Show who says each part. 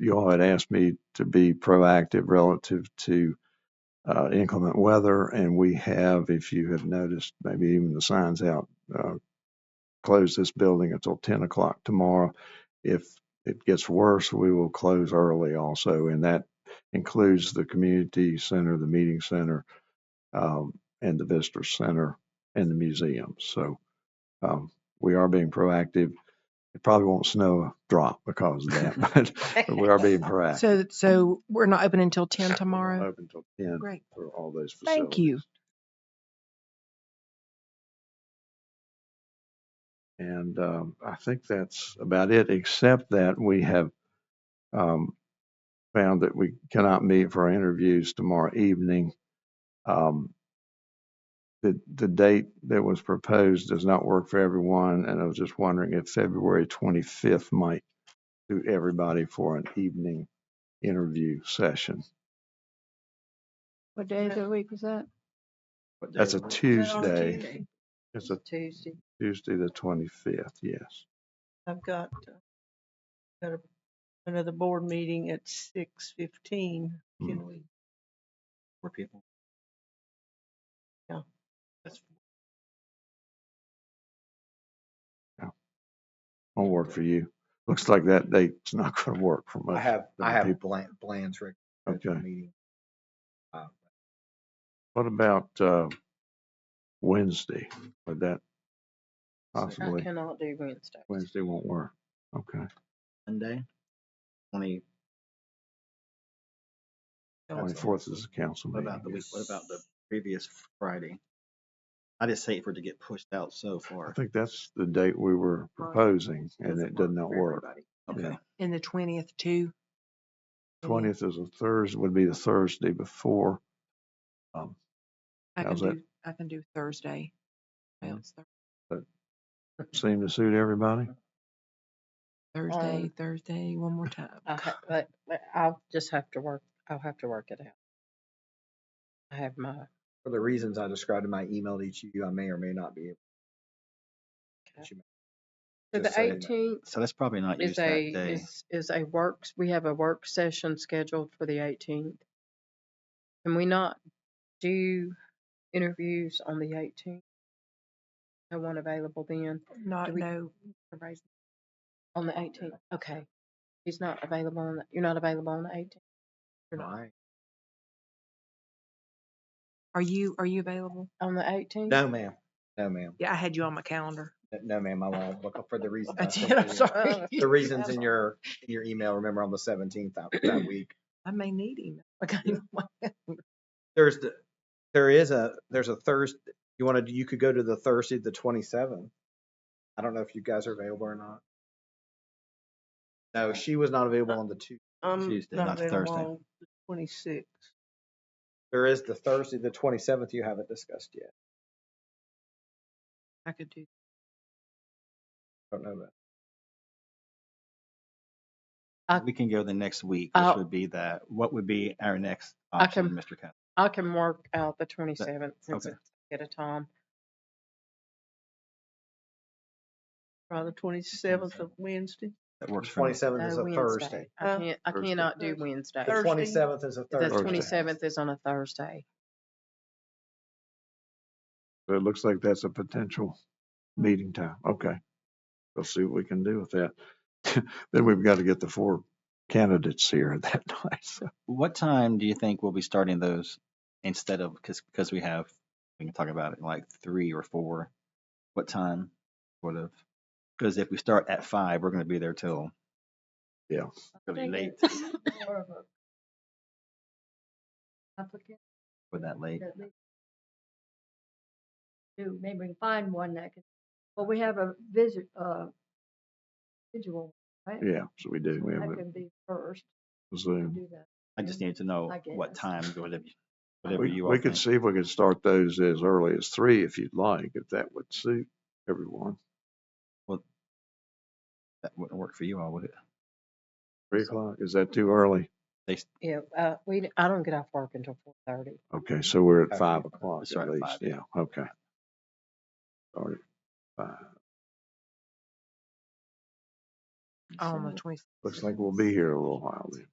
Speaker 1: y'all had asked me to be proactive relative to uh, inclement weather, and we have, if you have noticed, maybe even the signs out, uh, close this building until 10 o'clock tomorrow. If it gets worse, we will close early also, and that includes the community center, the meeting center, um, and the visitor center and the museum. So um, we are being proactive. It probably won't snow a drop because of that, but, but we are being proactive.
Speaker 2: So, so we're not open until ten
Speaker 1: We're
Speaker 2: tomorrow?
Speaker 1: open till 10
Speaker 2: Great.
Speaker 1: for all those
Speaker 2: Thank
Speaker 1: facilities.
Speaker 2: you.
Speaker 1: And um, I think that's about it, except that we have um, found that we cannot meet for our interviews tomorrow evening. Um, the, the date that was proposed does not work for everyone, and I was just wondering if February 25th might do everybody for an evening interview session.
Speaker 3: What day of the week was that?
Speaker 1: That's a Tuesday.
Speaker 4: Oh, Tuesday.
Speaker 1: It's a
Speaker 4: Tuesday.
Speaker 1: Tuesday, the 25th, yes.
Speaker 4: I've got, uh, got a- another board meeting at six fifteen.
Speaker 1: Hmm.
Speaker 4: Can we? Four people. Yeah. That's
Speaker 1: Won't work for you. Looks like that date's not going to work for
Speaker 5: I
Speaker 1: much.
Speaker 5: have, I
Speaker 1: other
Speaker 5: have
Speaker 1: people.
Speaker 5: plan- plans for for the
Speaker 1: Okay.
Speaker 5: meeting. Uh,
Speaker 1: What about uh, Wednesday? Would that
Speaker 4: I
Speaker 1: possibly,
Speaker 4: cannot do Wednesday.
Speaker 1: Wednesday won't work. Okay.
Speaker 5: Monday, twenty,
Speaker 4: Don't-
Speaker 1: 24th is the council
Speaker 5: what
Speaker 1: meeting.
Speaker 5: about the week, what about the previous Friday? I just hate for it to get pushed out so
Speaker 1: I
Speaker 5: far.
Speaker 1: think that's the date we were proposing and it did not work.
Speaker 5: Okay,
Speaker 2: And the twentieth too?
Speaker 1: Twentieth is a Thursday, would be the Thursday before. Um,
Speaker 2: I can
Speaker 1: How's that?
Speaker 2: do, I can do Thursday. Well, it's Thur-
Speaker 1: Seem to suit everybody?
Speaker 2: Thursday,
Speaker 4: Um,
Speaker 2: Thursday, one more time.
Speaker 4: I ha- But, but I'll just have to work, I'll have to work it out. I have my,
Speaker 5: for the reasons I described in my email to each of you, I may or may not be able
Speaker 4: Okay.
Speaker 5: to.
Speaker 4: so the
Speaker 5: Just saying that.
Speaker 4: eighteenth
Speaker 5: So let's probably not use
Speaker 4: is
Speaker 5: that
Speaker 4: a,
Speaker 5: day.
Speaker 4: is, is a works, we have a work session scheduled for the eighteenth. Can we not do interviews on the eighteenth? No one available then,
Speaker 2: Not,
Speaker 4: we-
Speaker 2: no,
Speaker 4: Everybody's on the eighteenth, okay. He's not available on, the- you're not available on the eighteenth?
Speaker 5: Right.
Speaker 2: are you, are you available?
Speaker 4: On the eighteenth?
Speaker 5: No, ma'am. No, ma'am.
Speaker 2: Yeah, I had you on my calendar.
Speaker 5: N- No, ma'am, I won't. Look up for the reasons.
Speaker 2: I
Speaker 5: I sent
Speaker 2: did, I'm
Speaker 5: you.
Speaker 2: sorry.
Speaker 5: The reasons in your, in your email, remember on the seventeenth that, that week.
Speaker 2: I may need him. I got him on my calendar.
Speaker 5: There's the, there is a, there's a Thursday, you wanna, do- you could go to the Thursday, the twenty-seventh. I don't know if you guys are available or not. No, she was not available
Speaker 4: Uh
Speaker 5: on the two,
Speaker 4: Tuesday, not
Speaker 5: the Thursday.
Speaker 4: Twenty-six.
Speaker 5: there is the Thursday, the twenty-seventh you haven't discussed yet.
Speaker 2: I could do,
Speaker 5: Don't know that.
Speaker 4: I-
Speaker 6: we can go the next week,
Speaker 4: I'll-
Speaker 6: which would be that, what would be our next
Speaker 4: I
Speaker 6: option,
Speaker 4: can-
Speaker 6: Mr. Cox?
Speaker 4: I can work out the twenty-seventh since
Speaker 6: okay.
Speaker 4: it's at a time. Or the twenty-seventh of Wednesday?
Speaker 6: That works for me.
Speaker 5: Twenty-seventh is
Speaker 4: No,
Speaker 5: a
Speaker 4: Wednesday.
Speaker 5: Thursday.
Speaker 4: I
Speaker 3: Huh?
Speaker 4: can't, I
Speaker 1: Thursday.
Speaker 4: cannot do
Speaker 3: Thursday.
Speaker 4: Wednesday.
Speaker 5: The twenty-seventh is a
Speaker 4: The
Speaker 5: Thursday.
Speaker 4: twenty-seventh is on a Thursday.
Speaker 1: So it looks like that's a potential meeting time. Okay. We'll see what we can do with that. Then we've got to get the four candidates here that night. So
Speaker 6: What time do you think we'll be starting those instead of, because, because we have, we can talk about it like three or four. What time sort of? Because if we start at five, we're going to be there till.
Speaker 1: Yeah.
Speaker 6: Really late
Speaker 3: Applicant,
Speaker 6: with that late.
Speaker 3: that we Do, maybe we can find one that can, well, we have a visit, uh, visual, right?
Speaker 1: Yeah, so we do.
Speaker 3: So
Speaker 1: We have
Speaker 3: That
Speaker 1: a
Speaker 3: can be first, we
Speaker 1: Zoom.
Speaker 3: do that.
Speaker 6: I just need to know
Speaker 3: I
Speaker 6: what
Speaker 3: guess.
Speaker 6: time, whatever, you- whatever
Speaker 1: We,
Speaker 6: you all
Speaker 1: we could
Speaker 6: think.
Speaker 1: see if we could start those as early as three if you'd like, if that would suit everyone.
Speaker 6: That wouldn't work for you all, would it?
Speaker 1: Three o'clock, is that too early?
Speaker 6: They, s-
Speaker 4: Yeah, uh, we, d- I don't get off work until four thirty.
Speaker 1: Okay, so we're at
Speaker 5: Okay.
Speaker 1: five o'clock
Speaker 6: Start at
Speaker 1: at least,
Speaker 6: five, yeah.
Speaker 1: yeah, okay. Start at five.
Speaker 2: on the twenty.
Speaker 1: Looks like we'll be here a little while then.